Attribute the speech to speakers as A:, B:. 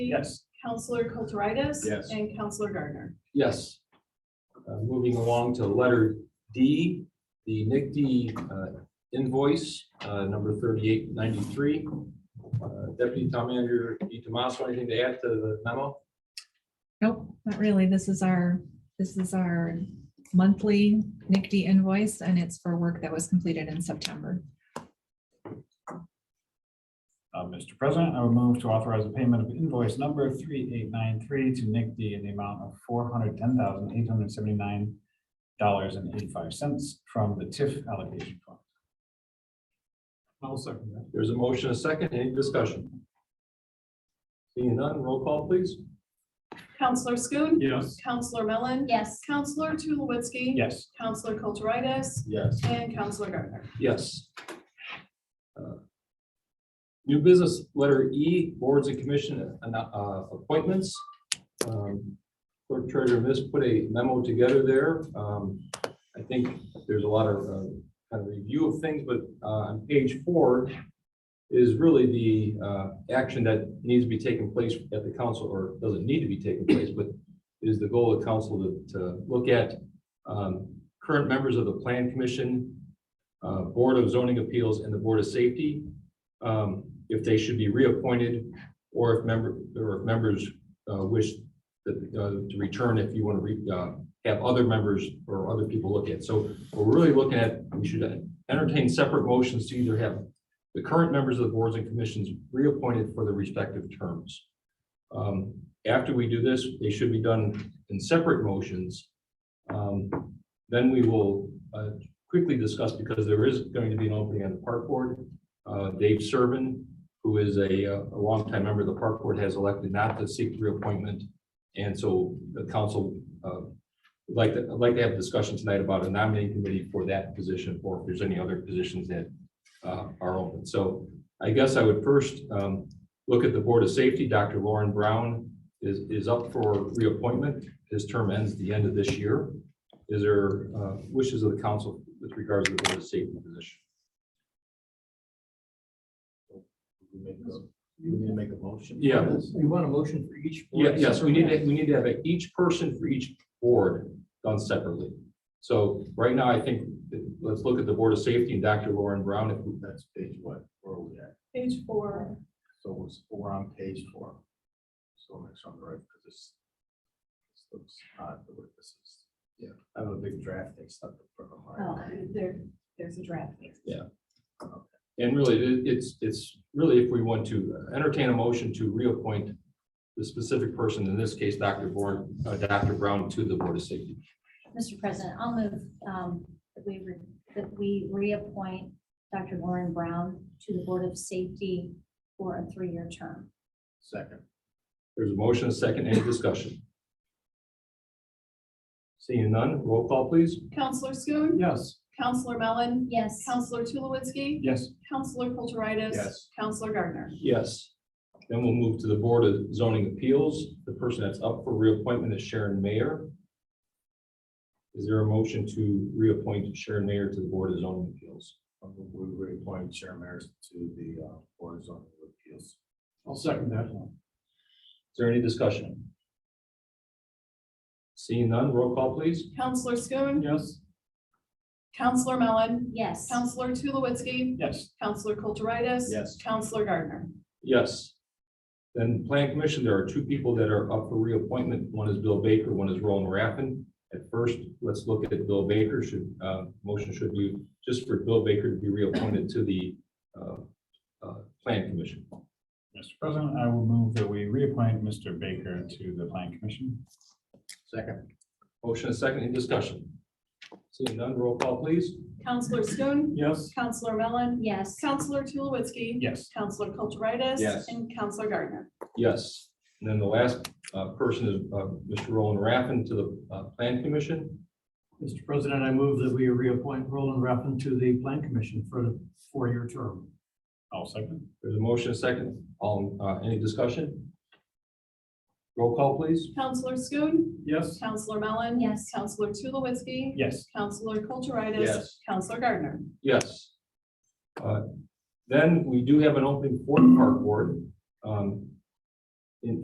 A: Yes.
B: Counselor Kulturitis.
A: Yes.
B: And Counselor Gardner.
C: Yes. Uh, Moving along to letter D, the NICD uh, invoice, uh, number thirty-eight ninety-three. Uh, Deputy Town Manager DiTomaso, anything to add to the memo?
D: Nope, not really. This is our, this is our monthly NICD invoice and it's for work that was completed in September.
A: Uh, Mr. President, I would move to authorize the payment of invoice number three eight nine three to Nick D in the amount of four hundred ten thousand eight hundred seventy-nine dollars and eighty-five cents from the TIF allocation fund. I'll second that.
C: There's a motion, a second, any discussion? Seeing none, roll call please.
B: Counselor Schoen.
A: Yes.
B: Counselor Mellon.
E: Yes,
B: Counselor Tulowitzki.
A: Yes.
B: Counselor Kulturitis.
C: Yes.
B: And Counselor Gardner.
C: Yes. Uh, New business, letter E, boards and commission uh, uh, appointments. Um, Clerk Treasurer Miss put a memo together there. Um, I think there's a lot of uh, kind of review of things, but uh, on page four is really the uh, action that needs to be taken place at the council, or doesn't need to be taken place, but is the goal of council to, to look at um, current members of the plan commission, uh, Board of Zoning Appeals and the Board of Safety, um, if they should be reappointed or if member, or if members uh, wish that, uh, to return if you want to re, uh, have other members or other people look at. So we're really looking at, we should entertain separate motions to either have the current members of the boards and commissions reappointed for their respective terms. Um, After we do this, they should be done in separate motions. Um, Then we will uh, quickly discuss because there is going to be an opening on the park board. Uh, Dave Servin, who is a, uh, a longtime member of the park board, has elected not to seek reappointment. And so the council, uh, would like, to- I'd like to have a discussion tonight about a nominating committee for that position, or if there's any other positions that, uh, are open. So I guess I would first, um, look at the Board of Safety. Dr. Lauren Brown is, is up for reappointment. His term ends the end of this year. Is there, uh, wishes of the council with regards to the board of safety position.
F: You need to make a motion.
C: Yeah.
F: You want a motion for each?
C: Yeah, yes, we need to, we need to have a- each person for each board done separately. So right now, I think, that- let's look at the Board of Safety and Dr. Lauren Brown. If we-
F: That's page what, where are we at?
B: Page four.
F: So it's, we're on page four. So make sure I'm right, because this. this looks odd, the way this is. Yeah, I have a big draft they stuck in front of
B: Oh,
F: mine.
B: there, there's a draft.
C: And really, it- it's, it's really if we want to entertain a motion to reappoint the specific person, in this case, Dr. Born, uh, Dr. Brown to the Board of Safety.
E: Mr. President, I'll move um, that we, re- that we reappoint Dr. Lauren Brown to the Board of Safety for a three-year term.
F: Second,
C: There's a motion, a second, any discussion? Seeing none, roll call, please.
B: Counselor Schoen.
A: Yes.
B: Counselor Mellon.
E: Yes,
B: Counselor Tulowitzki.
A: Yes.
B: Counselor Kulturitis.
F: Yes.
B: Counselor Gardner.
C: Yes. Then we'll move to the Board of Zoning Appeals. The person that's up for reappointment is Sharon Mayer. Is there a motion to reappoint Sharon Mayer to the Board of Zoning Appeals?
F: um, we reappoint Chair Maris to the uh, Board of Zoning Appeals.
A: I'll second that.
C: Is there any discussion? Seeing none, roll call please.
B: Counselor Schoen.
A: Yes.
B: Counselor Mellon.
E: yes,
B: Counselor Tulowitzki.
A: Yes.
B: Counselor Kulturitis.
F: Yes.
B: Counselor Gardner.
C: Yes. Then Plan Commission, there are two people that are up for reappointment. One is Bill Baker, one is Roland Raffin. At first, let's look at Bill Baker. Should, uh, motion should be just for Bill Baker to be reappointed to the, uh, uh, Plan Commission.
A: Mr. President, I will move that we reappoint Mr. Baker to the Plan Commission.
F: Second,
C: Motion and second in discussion. Seeing none, roll call please.
B: Counselor Schoen.
A: Yes.
B: Counselor Mellon.
E: yes,
B: Counselor Tulowitzki.
A: Yes.
B: Counselor Kulturitis.
F: Yes.
B: And Counselor Gardner.
C: Yes. And then the last, uh, person is, uh, Mr. Roland Raffin to the, uh, Plan Commission.
G: Mr. President, I move that we reappoint Roland Raffin to the Plan Commission for a four-year term.
A: I'll second.
C: There's a motion and second. All, uh, any discussion? Roll call please.
B: Counselor Schoen.
A: Yes.
B: Counselor Mellon.
E: yes,
B: Counselor Tulowitzki.
A: Yes.
B: Counselor Kulturitis.
F: Yes.
B: Counselor Gardner.
C: Yes. Uh, Then we do have an opening for the park board. Um,